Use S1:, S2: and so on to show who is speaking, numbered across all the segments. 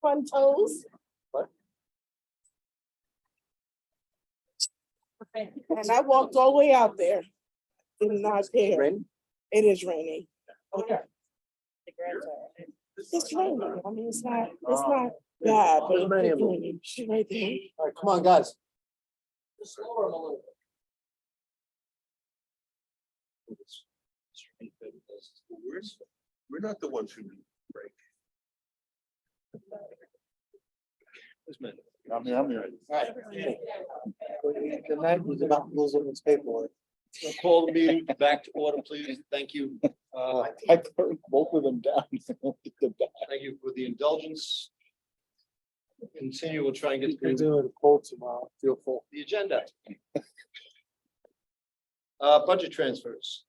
S1: Fun toes.
S2: What?
S1: And I walked all the way out there. Did not care.
S2: Rain?
S1: It is raining.
S2: Okay.
S1: It's raining. I mean, it's not, it's not bad, but it's raining. She's right there.
S2: All right, come on, guys.
S3: We're, we're not the ones who need break.
S2: I'm here, I'm here. Tonight was about losing its paperwork.
S3: Call the meeting back to order, please. Thank you. Uh,
S2: I turned both of them down.
S3: thank you for the indulgence. Continue, we'll try and
S2: You
S3: get
S2: can
S3: through
S2: do it in full tomorrow, feel full.
S3: the agenda. Uh, budget transfers.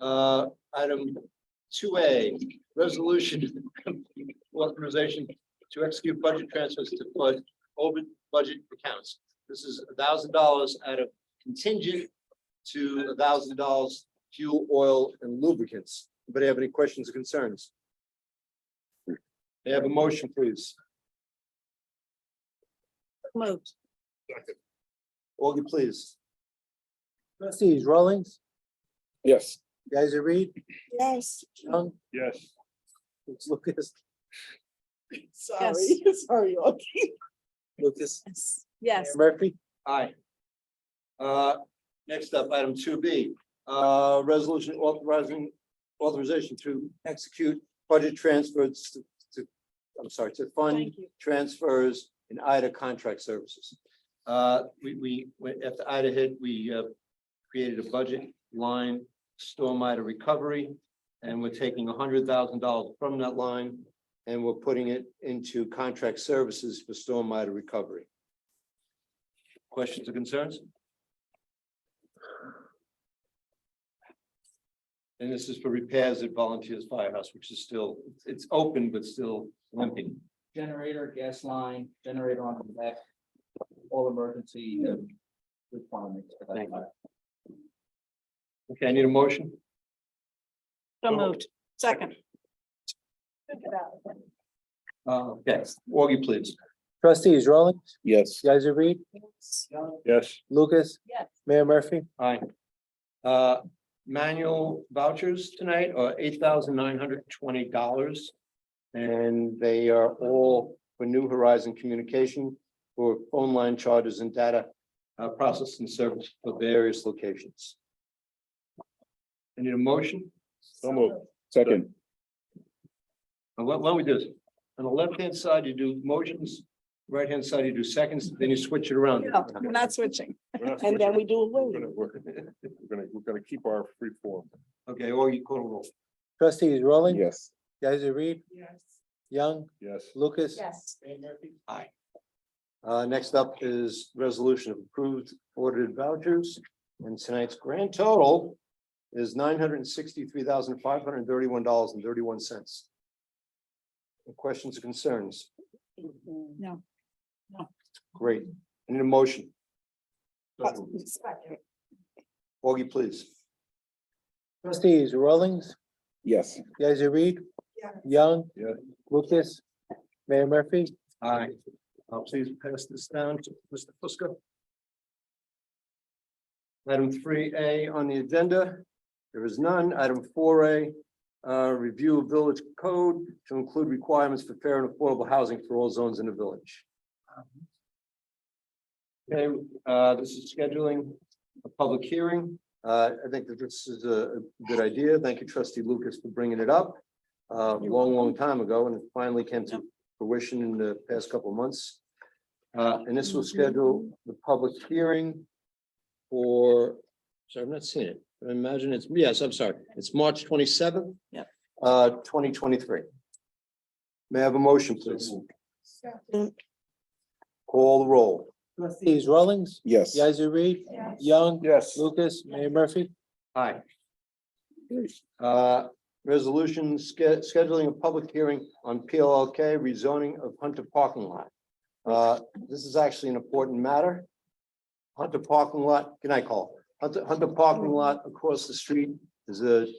S3: Uh, item two A, resolution authorization to execute budget transfers to fund open budget accounts. This is thousand dollars out of contingent to thousand dollars fuel, oil, and lubricants. Anybody have any questions or concerns? May I have a motion, please?
S1: Moved.
S3: Augie, please.
S2: Trustees Rollins,
S4: Yes.
S2: guys, you read,
S1: Yes,
S2: Young,
S4: Yes.
S2: Lucas,
S1: sorry, sorry. Audrey.
S2: Lucas,
S5: Yes,
S2: Murphy.
S3: Aye. Uh, next up, item two B, uh, resolution authorizing, authorization to execute budget transfers to, to- I'm sorry, to fund
S5: thank you.
S3: transfers in IDA contract services. Uh, we, we, when- after IDA hit, we, uh, created a budget line, storm IDA recovery. And we're taking hundred thousand dollars from that line and we're putting it into contract services for storm IDA recovery. Questions or concerns? And this is for repairs at Volunteers Firehouse, which is still, it's open, but still limping.
S6: generator, gas line, generator on the back, all emergency uh, requirements. for that
S3: Thank you.
S6: matter.
S3: Okay, I need a motion.
S5: So moved. Second.
S3: Uh, yes, Augie, please.
S2: Trustees Rollins,
S4: Yes.
S2: guys, you read,
S4: Yes.
S2: Lucas,
S5: Yes.
S2: Mayor Murphy.
S3: Aye. Uh, manual vouchers tonight are eight thousand nine hundred twenty dollars. And they are all for New Horizon Communication for phone line charges and data uh, processing service for various locations. I need a motion.
S4: So moved. Second.
S3: Now, Uh, Why why don't we do this? On the left-hand side, you do motions, right-hand side, you do seconds, then you switch it around.
S5: No, we're Oh, not switching.
S4: We're not
S1: And then
S4: switching.
S1: we do a
S4: We're
S1: win.
S4: gonna, work it. We're gonna, we're gonna keep our free form.
S3: Okay, or you call a roll.
S2: Trustees Rollins.
S4: Yes.
S2: Guys, you read,
S1: Yes.
S2: Young,
S4: Yes.
S2: Lucas,
S5: Yes.
S3: Aye. Uh, next up is resolution of approved ordered vouchers, and tonight's grand total is nine hundred and sixty-three thousand, five hundred and thirty-one dollars and thirty-one cents. Questions or concerns?
S5: No. No.
S3: Great. I Need a motion? Augie, please.
S2: trustees Rollins,
S4: Yes.
S2: guys, you read,
S1: Yes.
S2: Young.
S4: Yeah.
S2: Lucas, Mayor Murphy.
S3: Aye. Uh, please pass this down to Mr. Fusco. Item three A on the agenda, there is none. Item four A, uh, review of village code to include requirements for fair and affordable housing for all zones in the village. Okay, uh, this is scheduling a public hearing. Uh, I think that this is a a good idea. Thank you, trustee Lucas, for bringing it up. Uh, a long, long time ago, and it finally came to fruition in the past couple of months. Uh, and this will schedule the public hearing for, sorry, I'm not seeing it, but I imagine it's, yes, I'm sorry, it's March twenty-seventh.
S5: Yep.
S3: Uh, twenty twenty-three. May I have a motion, please? Call the roll.
S2: Trustees Rollins,
S4: Yes.
S2: guys, you read, Young,
S4: Yes.
S2: Lucas, Mayor Murphy.
S3: Aye. Uh, resolution sch- scheduling a public hearing on PLLK rezoning of Hunter parking lot. Uh, this is actually an important matter. Hunter parking lot, can I call? Hunter, Hunter parking lot across the street is a